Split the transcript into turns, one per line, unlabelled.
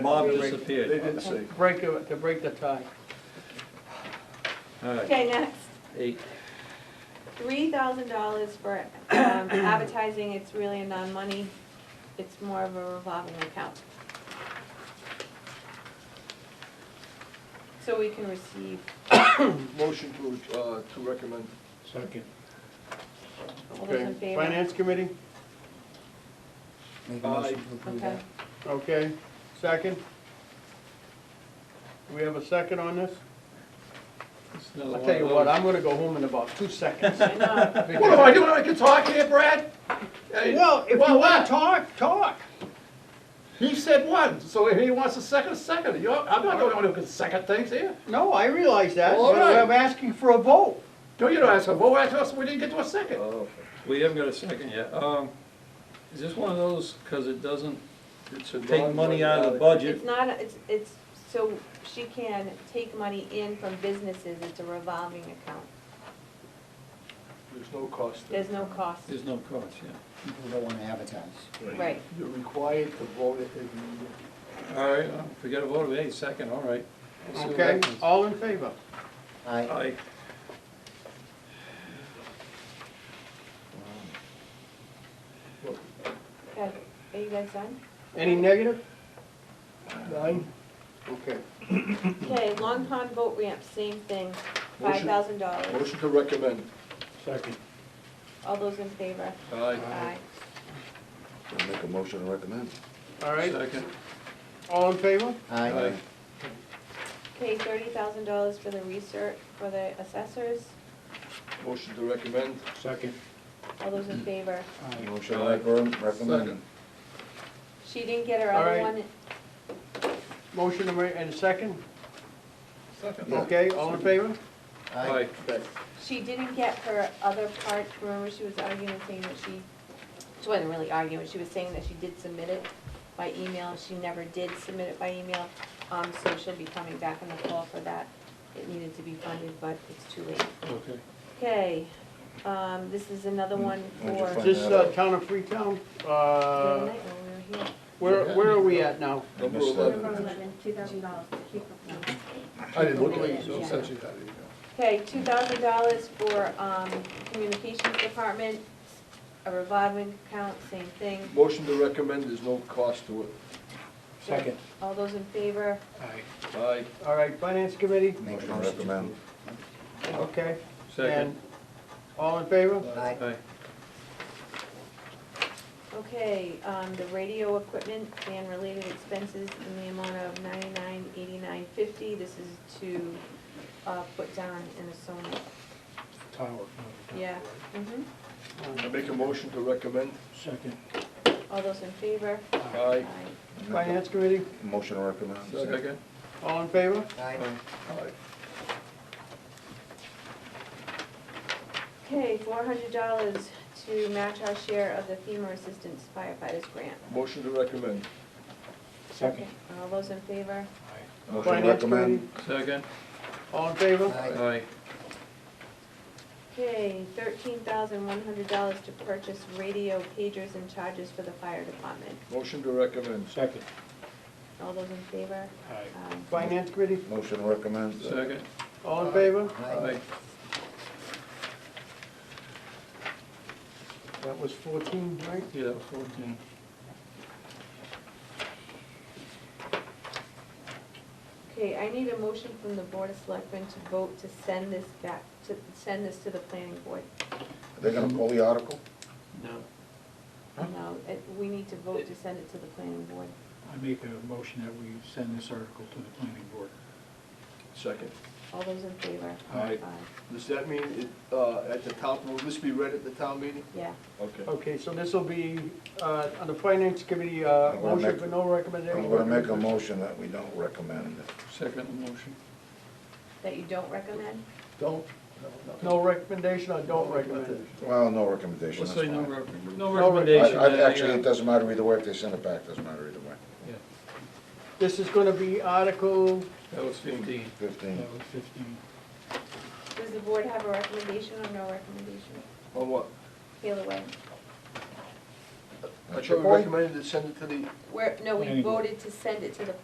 Mob
They
disappeared.
didn't see.
break, the- to break the tie.
All right,
Okay, next,
eight,
three thousand dollars for um, advertising, it's really a non-money, it's more of a revolving account. So we can receive,
Motion to, uh, to recommend.
Second.
all those in favor?
Finance committee,
Make a motion to approve
Okay,
that.
okay, second. Do we have a second on this? I'll tell you what, I'm gonna go home in about two seconds.
I know.
What am I doing? I can talk here, Brad? Hey,
Well, if you
Well,
wanna
what?
talk, talk.
He said one, so if he wants a second, a second. You're, I'm not the only one who can second things here.
No, I realize that,
All
but
right.
I'm asking for a vote.
No, you don't ask him. Well, ask us, we didn't get to a second.
Oh, we haven't got a second yet. Um, is this one of those, cause it doesn't, it should take
non-
money out of the
It's
budget?
not, a- it's, it's, so she can take money in from businesses, it's a revolving account,
There's no cost.
there's no cost,
There's no cost, yeah.
People don't wanna advertise.
right,
You're required to vote it every year.
All right, uh, if we get a vote of eight, second, all right. We'll see what
Okay,
happens.
all in favor?
Aye.
Aye.
okay, are you guys done?
Any negative?
Nine.
Okay.
Okay, Long Pond boat ramp, same thing, five
Motion.
thousand dollars,
Motion to recommend.
Second.
all those in favor?
Aye.
Aye.
I'll make a motion to recommend.
All right,
Second,
all in favor?
Aye.
Aye.
Okay, thirty thousand dollars for the research, for the assessors,
Motion to recommend.
Second.
all those in favor?
Motion to recommend, recommend.
Second.
She didn't get her
All
other
right.
one,
Motion to ma- and a second,
Second.
okay, all in favor?
Aye.
aye,
she didn't get her other part, remember she was arguing, saying that she, she wasn't really arguing, she was saying that she did submit it by email, she never did submit it by email, um, so she'll be coming back in the fall for that. It needed to be funded, but it's too late.
okay.
Okay, um, this is another one
Where'd Mm. you
for.
find-
This uh, town of Freetown,
the other
uh,
night when we were here.
where, where are we at now?
I
Number
missed that.
eleven.
Number eleven, two thousand dollars to keep up.
I didn't look at it,
Yeah.
so essentially, how do you go?
Okay, two thousand dollars for, um, communications department, a revolving account, same thing.
Motion to recommend, there's no cost to it.
Second.
All those in favor?
Aye.
All right, finance committee,
Make a
Motion to
motion to
recommend.
approve.
okay, and
Second,
all in favor?
Aye.
aye,
Okay, um, the radio equipment and related expenses in the amount of ninety-nine, eighty-nine, fifty. This is to, uh, put down in a Sony. Yeah, mhm.
I make a motion to recommend.
Second.
All those in favor?
Aye.
Finance committee,
Motion to recommend.
second,
all in favor?
Aye.
Aye.
Okay, four hundred dollars to match our share of the FEMA assistance firefighters grant.
Motion to recommend.
Second. All those in favor?
Motion to
Finance
recommend.
committee,
second,
all in favor?
Aye.
aye,
Okay, thirteen thousand one hundred dollars to purchase radio pagers and chargers for the fire department.
Motion to recommend.
Second.
All those in favor? Um, Aye.
Finance committee,
Motion to recommend.
second,
all in favor?
Aye.
aye,
That was fourteen, right?
yeah, that was fourteen.
Okay, I need a motion from the Board of Selectmen to vote to send this back, to send this to the planning board.
They're gonna pull the article?
No.
No, it- we need to vote to send it to the planning board.
I make a motion that we send this article to the planning board.
Second.
All those in favor?
Aye. Does that mean it, uh, at the town, will this be read at the town meeting?
Yeah,
Okay.
Okay, so this will be, uh, on the finance committee, uh,
I'm gonna
motion
make-
for no recommendation.
I'm gonna make a motion that we don't recommend.
Second motion,
that you don't recommend?
Don't.
No recommendation or don't recommend?
Well, no recommendation,
let's
that's
say no,
fine.
rec- no
No
I-
recommendation.
I-
yeah,
Actually,
yeah.
it doesn't matter either way, if they send it back, doesn't matter either way.
Yeah,
This is gonna be Article
that was fifteen.
Fifteen.
That was fifteen.
Does the board have a recommendation or no recommendation?
On what?
Either way.
I thought we recommended to send it to the
Where, no, we
Planning board.
voted to send it to the